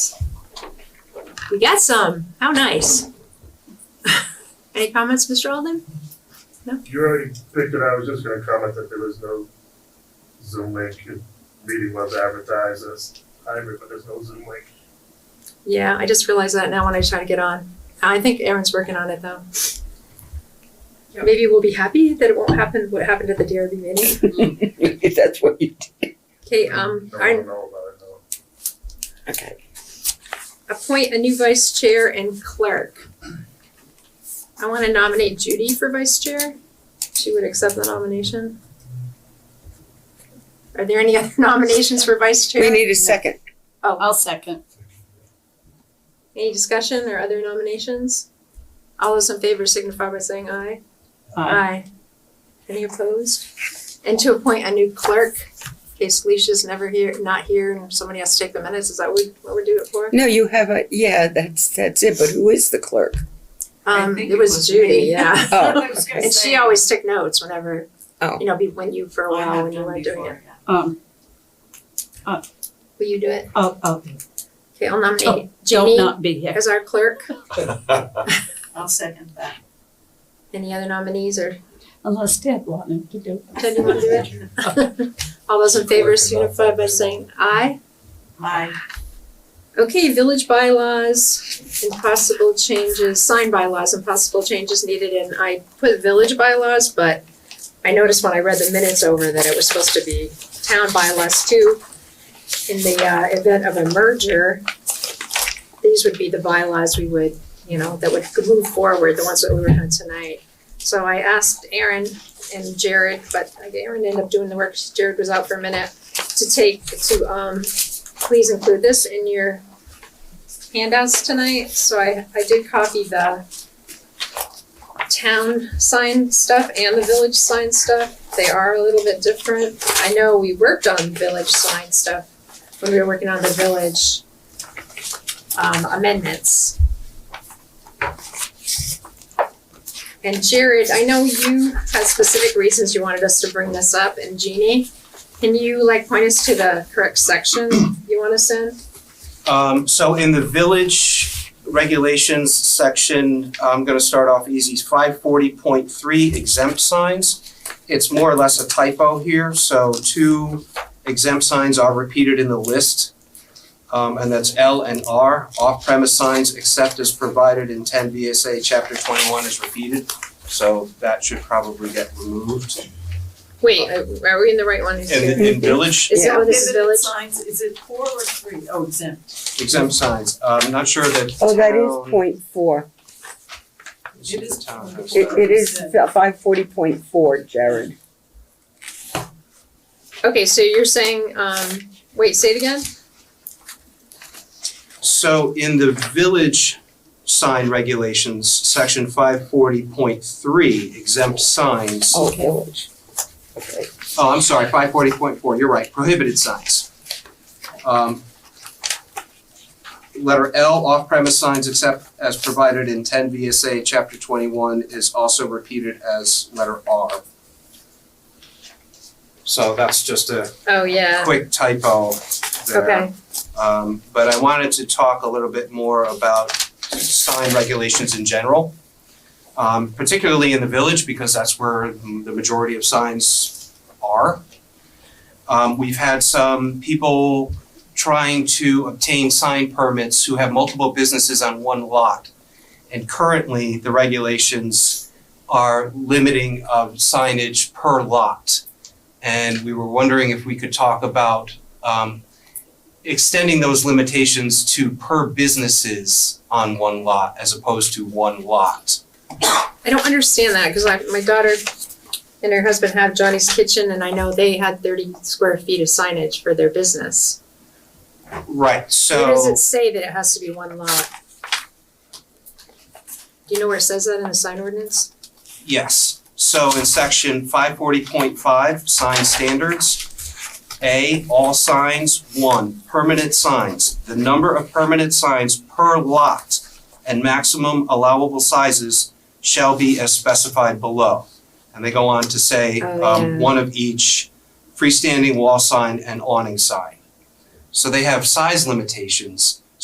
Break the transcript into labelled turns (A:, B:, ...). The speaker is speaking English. A: We got some. How nice. Any comments, Mr. Alden?
B: You already picked it, I was just gonna comment that there was no Zoom link, The meeting was advertised as hybrid, but there's no Zoom link.
A: Yeah, I just realized that now when I try to get on. I think Aaron's working on it though.
C: Yeah.
A: Maybe we'll be happy that it won't happen what happened at the DRB meeting.
D: If that's what you do.
A: Okay, um,
B: No
A: I
B: one know about it, no.
D: Okay.
A: appoint a new vice chair and clerk. I want to nominate Judy for vice chair. She would accept the nomination. Are there any other nominations for vice
D: We
A: chair?
D: need a second.
E: Oh.
C: I'll second.
A: Any discussion or other nominations? All those in favor signify by saying aye.
E: Uh,
A: Aye. Any opposed? And to appoint a new clerk, in case Alicia's never here, not here, and somebody has to take the minutes, is that what what we're doing it for?
D: No, you have a, yeah, that's, that's it, but who is the clerk?
C: I
A: Um,
C: think
A: it
C: it
A: was
C: was
A: Judy,
C: me.
A: yeah.
D: Oh,
A: And she always took notes whenever,
D: Oh.
A: you know, be when you, for a while, when you weren't doing it.
C: Um,
A: Will you do it?
C: oh, oh,
A: Okay, I'll nominate
C: don't
A: Jeannie
C: not be here.
A: as our clerk.
E: I'll second that.
A: Any other nominees or,
C: Unless Deb wanted to do it.
A: Ted, you wanna do it? All those in favor signify by saying aye.
E: Aye.
A: Okay, village bylaws and possible changes, sign bylaws and possible changes needed, and I put village bylaws, but I noticed when I read the minutes over that it was supposed to be town bylaws too. In the uh event of a merger, these would be the bylaws we would, you know, that would move forward, the ones that we were on tonight. So I asked Aaron and Jared, but Aaron ended up doing the work, Jared was out for a minute, to take, to um please include this in your handouts tonight, so I, I did copy the town sign stuff and the village sign stuff, they are a little bit different. I know we worked on village sign stuff when we were working on the village um, amendments. And Jared, I know you had specific reasons you wanted us to bring this up, and Jeannie, can you like point us to the correct section you want us in?
F: Um, so in the village regulations section, I'm gonna start off easy, five forty point three exempt signs. It's more or less a typo here, so two exempt signs are repeated in the list. Um, and that's L and R, off-premise signs except as provided in ten VSA chapter twenty-one is repeated. So that should probably get removed.
A: Wait, are we in the right one? Is
F: And in,
A: it-
F: in village,
A: is that what this is
E: Prohibited
A: village?
E: signs, is it four or three? Oh, exempt.
F: exempt signs, I'm not sure that
D: oh, that
F: town-
D: is point four.
E: It is
F: town has
E: point
D: It,
F: that.
D: it is five forty point four, Jared.
A: Okay, so you're saying, um, wait, say it again?
F: So in the village sign regulations, section five forty point three exempt signs.
D: Oh, village. Okay.
F: Oh, I'm sorry, five forty point four, you're right, prohibited signs. Um, Letter L, off-premise signs except as provided in ten VSA, chapter twenty-one is also repeated as letter R. So that's just a
A: Oh, yeah,
F: quick typo there.
A: okay,
F: Um, but I wanted to talk a little bit more about sign regulations in general. Um, particularly in the village, because that's where the majority of signs are. Um, we've had some people trying to obtain sign permits who have multiple businesses on one lot. And currently, the regulations are limiting of signage per lot. And we were wondering if we could talk about, um, extending those limitations to per businesses on one lot as opposed to one lot.
A: I don't understand that, cause like, my daughter and her husband have Johnny's Kitchen, and I know they had thirty square feet of signage for their business.
F: Right,
A: Where does
F: so
A: it say that it has to be one lot? Do you know where it says that in the sign ordinance?
F: yes, so in section five forty point five, sign standards. A, all signs, one, permanent signs, the number of permanent signs per lot and maximum allowable sizes shall be as specified below. And they go on to say,
A: Oh, yeah.
F: um, one of each freestanding wall sign and awning sign. So they have size limitations